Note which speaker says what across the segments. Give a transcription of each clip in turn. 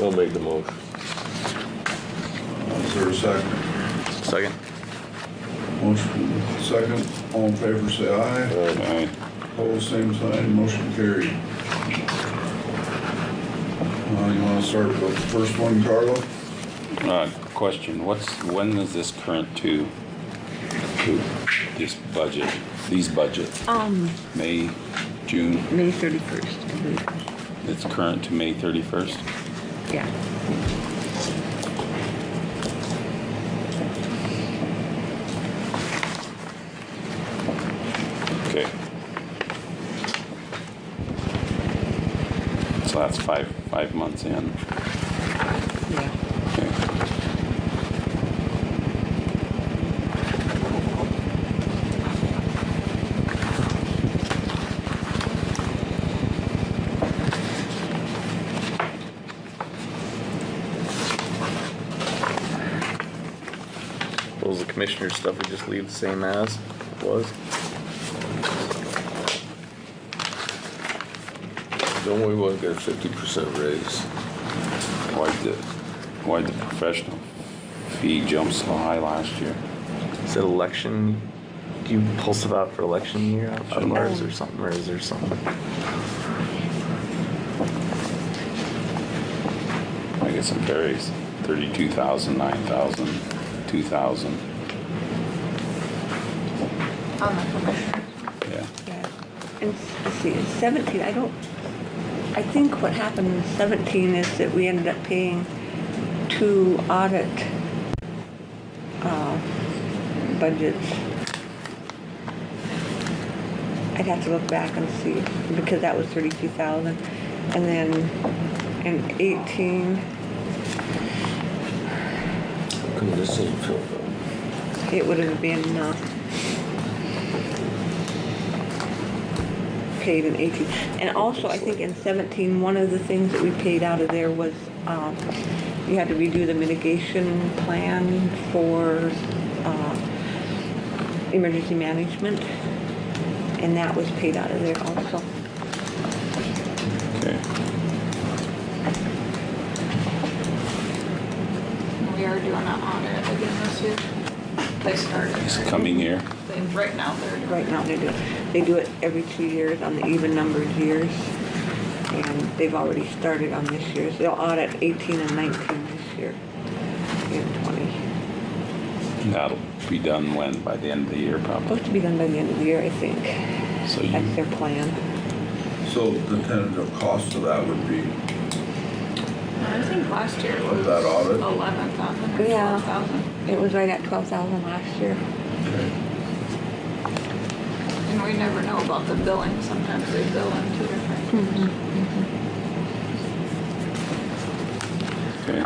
Speaker 1: I'll make the motion.
Speaker 2: Is there a second?
Speaker 3: Second.
Speaker 2: Motion second, all in favor say aye.
Speaker 3: Aye.
Speaker 2: Opposed, same sign, motion carried. Uh, you wanna start with the first one, Carla?
Speaker 4: Uh, Question, what's, when is this current to, to this budget, these budgets?
Speaker 5: Um,
Speaker 4: May, June,
Speaker 5: May thirty-first, I believe,
Speaker 4: it's current to May 31st?
Speaker 5: yeah.
Speaker 4: Okay. So that's five, five months in.
Speaker 5: Yeah.
Speaker 4: Okay.
Speaker 3: Those the commissioner stuff we just leave the same as it was.
Speaker 1: Don't we want to get a fifty percent raise?
Speaker 4: Why'd the, why'd the professional fee jump so high last year?
Speaker 3: Is it election? Do you pulse it out for election year option
Speaker 4: know.
Speaker 3: or is there something or is there something?
Speaker 4: I guess it varies, thirty-two thousand, nine thousand, two thousand,
Speaker 5: On the commissioners.
Speaker 4: yeah.
Speaker 5: Yeah, and s- let's see, it's seventeen, I don't, I think what happened in seventeen is that we ended up paying two audit, uh, budgets. I'd have to look back and see, because that was thirty-two thousand, and then in eighteen,
Speaker 1: Come this ain't filled out.
Speaker 5: it would have been, uh, paid in eighteen. And also, I think in seventeen, one of the things that we paid out of there was, um, you had to redo the mitigation plan for, uh, emergency management. And that was paid out of there also.
Speaker 4: Okay,
Speaker 6: We are doing an audit again this year. They started.
Speaker 4: it's coming here,
Speaker 6: They, right now, they're doing.
Speaker 5: Right now, they do, they do it every two years on the even numbered years. And they've already started on this year's. They'll audit eighteen and nineteen this year. And twenty.
Speaker 4: that'll be done when, by the end of the year probably?
Speaker 5: Supposed to be done by the end of the year, I think.
Speaker 4: So you-
Speaker 5: That's their plan.
Speaker 2: So the tentative cost of that would be,
Speaker 6: I think last year
Speaker 2: Of
Speaker 6: was
Speaker 2: that audit?
Speaker 6: eleven thousand or
Speaker 5: Yeah.
Speaker 6: twelve thousand.
Speaker 5: It was right at twelve thousand last year.
Speaker 6: And we never know about the billing. Sometimes they bill in two different years.
Speaker 4: Okay,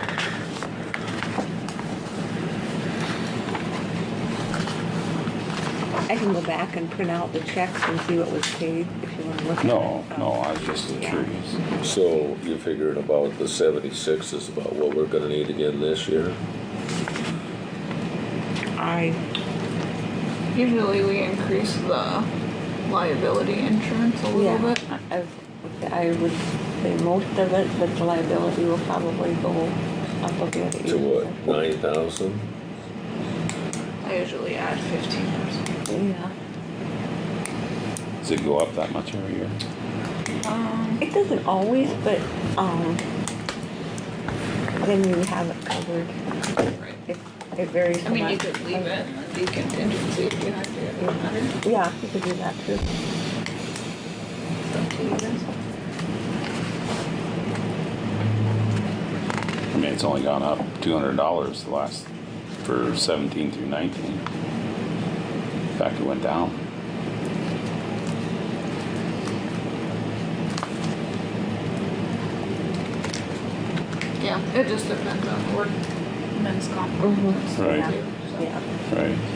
Speaker 5: I can go back and print out the checks and see what was paid if you wanna look at it.
Speaker 4: no, no,
Speaker 5: Um,
Speaker 4: I was just curious.
Speaker 1: So you're figuring about the seventy-six is about what we're gonna need again this year?
Speaker 5: I, Hmm.
Speaker 6: Usually we increase the liability insurance a little
Speaker 5: yeah,
Speaker 6: bit.
Speaker 5: I, I would say most of it, but the liability will probably go up a bit.
Speaker 1: To what, nine thousand?
Speaker 6: I usually add fifteen percent.
Speaker 5: Yeah.
Speaker 4: Does it go up that much every year?
Speaker 6: Um,
Speaker 5: It doesn't always, but, um, then you have it covered.
Speaker 6: right.
Speaker 5: It, it varies
Speaker 6: I
Speaker 5: so
Speaker 6: mean, you
Speaker 5: much.
Speaker 6: could leave it and be contingency if you have to get one hundred.
Speaker 5: Yeah, you could do that too.
Speaker 6: Up to you guys.
Speaker 4: I mean, it's only gone up two hundred dollars the last, for seventeen through nineteen. In fact, it went down.
Speaker 6: Yeah, it just depends on workman's comp.
Speaker 5: Mhm.
Speaker 6: That's what
Speaker 4: Right.
Speaker 6: we do, so.
Speaker 5: Yeah.
Speaker 4: Right.